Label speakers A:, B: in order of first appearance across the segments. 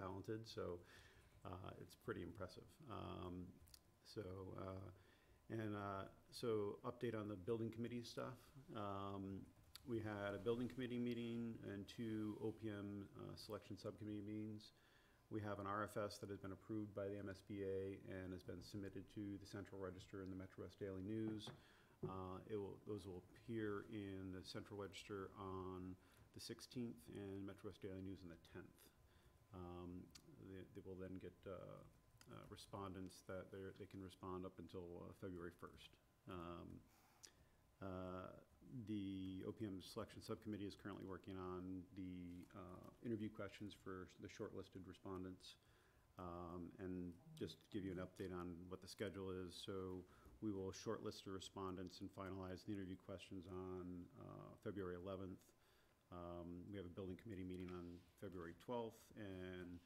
A: talented, so uh, it's pretty impressive. Um, So, uh, and uh, so update on the building committee stuff. Um, We had a building committee meeting and two OPM uh, selection subcommittee meetings. We have an RFS that has been approved by the MSBA and has been submitted to the Central Register and the Metro West Daily News. Uh, It will, those will appear in the Central Register on the 16th and Metro West Daily News on the 10th. Um, They they will then get uh, uh, respondents that they're- they can respond up until uh, February 1st. Um, uh, The OPM Selection Subcommittee is currently working on the uh, interview questions for the shortlisted respondents. Um, And just to give you an update on what the schedule is, so we will shortlist the respondents and finalize the interview questions on uh, February 11th. Um, We have a building committee meeting on February 12th, and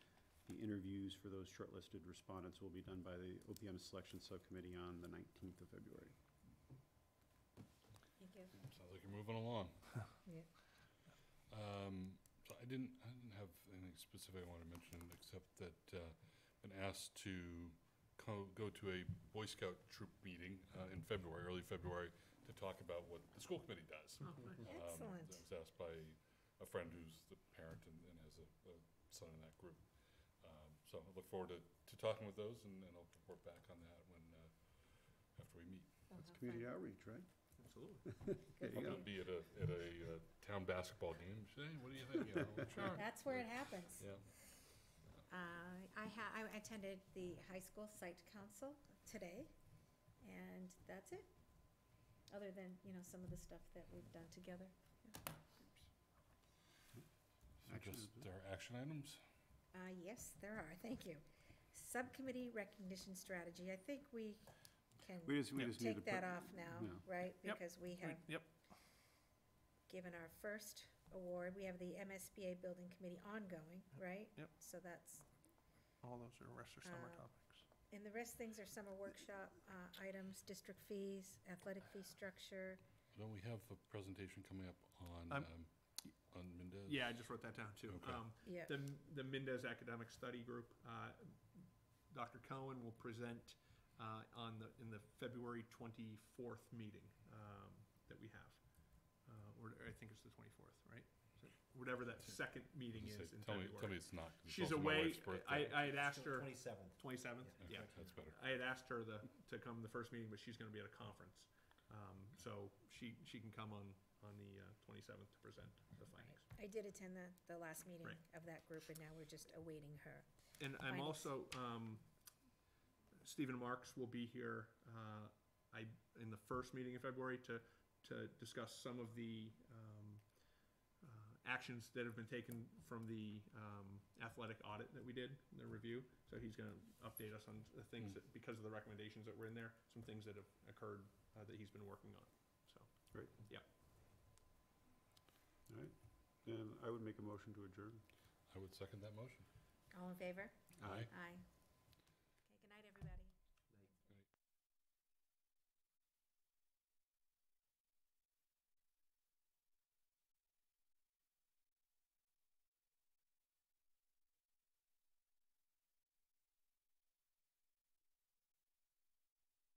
A: the interviews for those shortlisted respondents will be done by the OPM Selection Subcommittee on the 19th of February.
B: Thank you.
C: Sounds like you're moving along.
B: Yeah.
C: Um, so I didn't, I didn't have anything specific I wanted to mention, except that, uh, been asked to co- go to a Boy Scout troop meeting, uh, in February, early February, to talk about what the school committee does. Um,
B: Excellent.
C: I was asked by a friend who's the parent and, and has a, a son in that group. Um, so I look forward to, to talking with those and, and I'll report back on that when, uh, after we meet.
A: That's community outreach, right?
D: Absolutely.
A: There you
C: I'm gonna
A: go.
C: be at a, at a uh, town basketball game, say, what do you think? You know, sure.
B: That's where it happens.
C: Yeah.
B: Uh, I ha, I attended the high school site council today, and that's it. Other than, you know, some of the stuff that we've done together.
C: So just our action items.
B: Uh, yes, there are, thank you. Subcommittee recognition strategy, I think we
A: We
B: can
A: just, we just need to.
B: take that
A: put-
B: off
A: Yeah.
B: now, right?
D: Yep.
B: Because we have
D: Yep,
B: given our first award. We have the MSBA Building Committee ongoing, right?
D: Yep.
B: So that's
D: all those are rest or summer
B: Uh,
D: topics.
B: And the rest things are summer workshop uh, items, district fees, athletic fee structure.
C: Don't we have a presentation coming up on,
D: I'm-
C: um, on Mendez?
D: Yeah, I just wrote that down too.
C: Okay.
D: Um,
B: Yeah.
D: The, the Mendez Academic Study Group, uh, Dr. Cohen will present uh, on the, in the February 24th meeting um, that we have. Uh, Or I think it's the 24th, right? So Whatever that second meeting
C: Just
D: is
C: say-
D: in
C: Tell me, tell me
D: February.
C: it's not. 'cause it's
D: She's
C: also my
D: away.
C: wife's birthday.
D: I, I had asked her,
E: Twenty-seventh.
D: 27th?
C: Okay,
D: Yeah.
C: That's better.
D: I had asked her the, to come the first meeting, but she's gonna be at a conference. Um, so she, she can come on, on the uh, twenty-seventh to present the findings.
B: I did attend the, the last meeting
D: Right.
B: of that group, and now we're just awaiting her.
D: And I'm
B: Findings.
D: also, um, Stephen Marks will be here, uh, I, in the first meeting in February to, to discuss some of the, um, uh, actions that have been taken from the, um, athletic audit that we did, the review. So he's gonna update us on the things that, because of the recommendations that were in there, some things that have occurred, uh, that he's been working on, so.
A: Great.
D: Yeah.
A: All right. Then I would make a motion to adjourn.
C: I would second that motion.
B: All in favor?
C: Aye.
B: Aye.